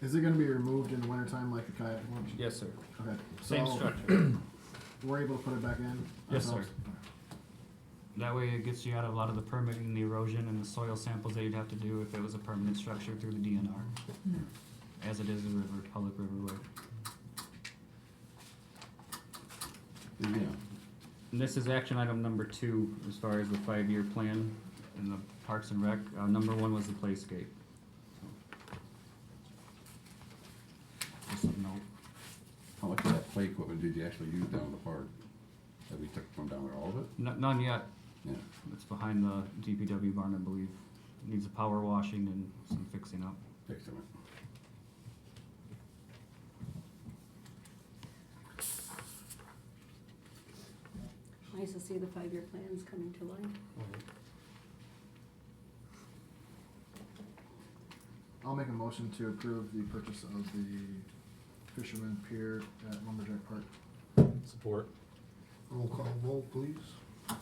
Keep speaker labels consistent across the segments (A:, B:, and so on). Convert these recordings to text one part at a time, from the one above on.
A: Is it gonna be removed in the wintertime like the kayak launch?
B: Yes, sir.
A: Okay,
B: Same
A: so
B: structure.
A: we're able to put it back in?
B: Yes, sir.
A: ourselves?
B: That way it gets you out of a lot of the permitting, the erosion, and the soil samples that you'd have to do if it was a permanent structure through the DNR, as it is a river, public riverway.
C: Yeah,
B: And this is action item number two, as far as the five-year plan in the Parks and Rec. Uh, number one was the playscape. Just a note.
C: how much of that play equipment did you actually use down at the park? That we took from down there, all of it?
B: N- none yet.
C: Yeah,
B: It's behind the DPW barn, I believe. Needs a power washing and some fixing up.
C: excellent.
D: Nice to see the five-year plans coming to life.
A: I'll make a motion to approve the purchase of the Fisherman Pier at Lumberjack Park.
E: Support.
F: Roll call vote, please.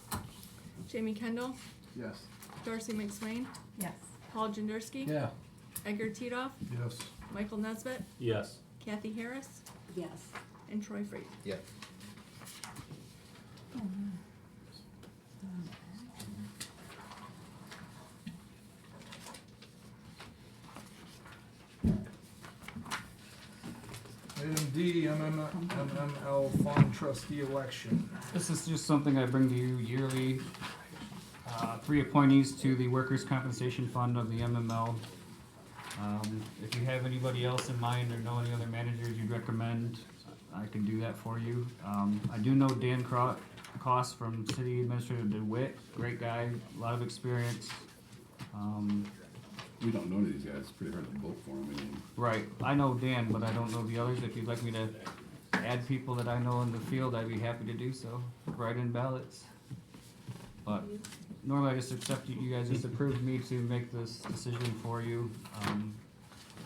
G: Jamie Kendall,
A: Yes.
G: Darcy McSwain,
D: Yes.
G: Paul Jenderski,
C: Yeah.
G: Edgar Titoff,
F: Yes.
G: Michael Nesbitt,
E: Yes.
G: Kathy Harris,
D: Yes.
G: and Troy Freight.
E: Yeah.
F: Item D, MML MML Fund Trustee Election.
B: This is just something I bring to you yearly. Uh, Three appointees to the Workers' Compensation Fund of the MML. Um, If you have anybody else in mind or know any other managers you'd recommend, I can do that for you. Um, I do know Dan Cro- Cost from City Administrator DeWitt, great guy, a lot of experience. Um,
C: We don't know any of these guys, it's pretty hard to vote for them, I mean,
B: Right, I know Dan, but I don't know the others. If you'd like me to add people that I know in the field, I'd be happy to do so. Write in ballots. But normally I just accept you, you guys just approved me to make this decision for you. Um,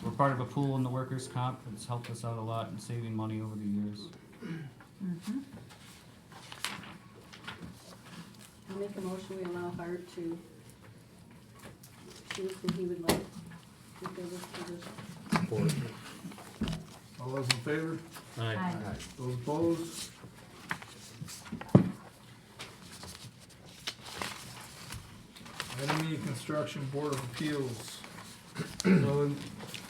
B: we're part of a pool in the workers' comp. It's helped us out a lot in saving money over the years.
D: I'll make a motion, we allow Hart to choose who he would like to fill this position.
E: Support.
F: All those in favor?
E: Aye.
F: Those opposed? Item E, Construction Board of Appeals.
B: So,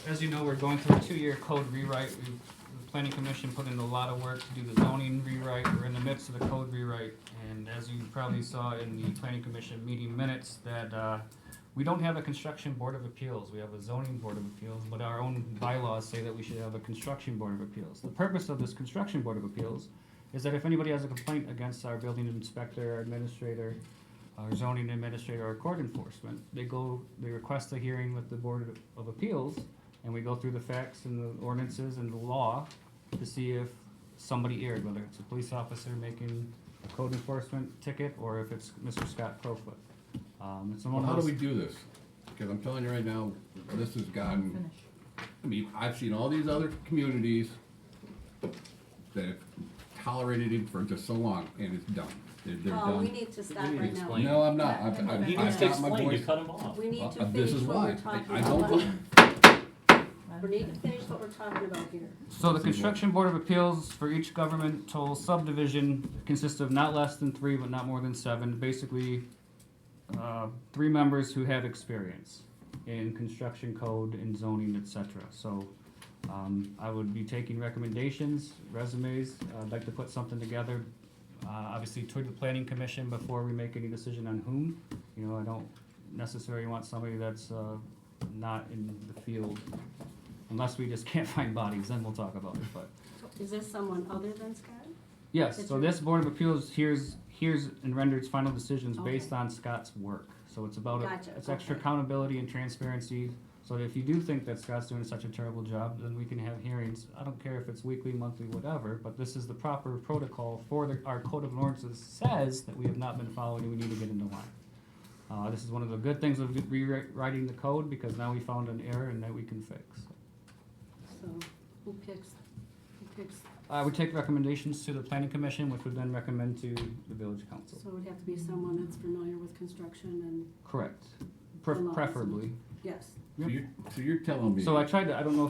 B: as you know, we're going through a two-year code rewrite. We, the planning commission put in a lot of work to do the zoning rewrite. We're in the midst of the code rewrite. And as you probably saw in the planning commission meeting minutes, that, uh, we don't have a construction board of appeals. We have a zoning board of appeals, but our own bylaws say that we should have a construction board of appeals. The purpose of this construction board of appeals is that if anybody has a complaint against our building inspector, administrator, our zoning administrator or court enforcement, they go, they request a hearing with the Board of- of Appeals, and we go through the facts and the ordinances and the law to see if somebody erred, whether it's a police officer making a code enforcement ticket, or if it's Mr. Scott Profoot. Um, it's
C: well,
B: one
C: how
B: of
C: do we
B: those,
C: do this? Cause I'm telling you right now, this has gotten, I mean, I've seen all these other communities that have tolerated it for just so long, and it's done, they're, they're
D: Oh, we
C: done.
D: need to stop
E: need to
D: right now.
E: explain.
C: No, I'm not, I've, I've,
D: You
C: I've
D: just
C: got my voice.
E: them off.
D: We need to
C: Uh, This
D: finish
C: is
D: what we're
C: why,
D: talking
C: I I don't,
D: about.
C: vote.
D: We need to finish what we're talking about here.
B: so the Construction Board of Appeals for each governmental subdivision consists of not less than three, but not more than seven, basically, uh, three members who have experience in construction code and zoning, et cetera. So, um, I would be taking recommendations, resumes, I'd like to put something together, uh, obviously toward the planning commission before we make any decision on whom. You know, I don't necessarily want somebody that's, uh, not in the field, unless we just can't find bodies, then we'll talk about it, but.
D: Is this someone other than Scott?
B: Yes,
D: That's
B: so
D: right.
B: this Board of Appeals hears, hears and renders final decisions based
D: Okay.
B: on Scott's work. So it's about,
D: Gotcha,
B: it's extra
D: okay.
B: accountability and transparency. So if you do think that Scott's doing such a terrible job, then we can have hearings. I don't care if it's weekly, monthly, whatever, but this is the proper protocol for the, our code of ordinances says that we have not been following and we need to get into line. Uh, this is one of the good things of rewriting the code because now we found an error and that we can fix.
D: So who picks, who picks,
B: I would Uh, take recommendations to the planning commission, which would then recommend to the village council.
D: so it would have to be someone that's familiar with construction and,
B: Correct.
D: The
B: Pref-
D: laws.
B: Preferably.
D: yes.
C: so you're, so you're telling me.
B: So I tried to, I don't know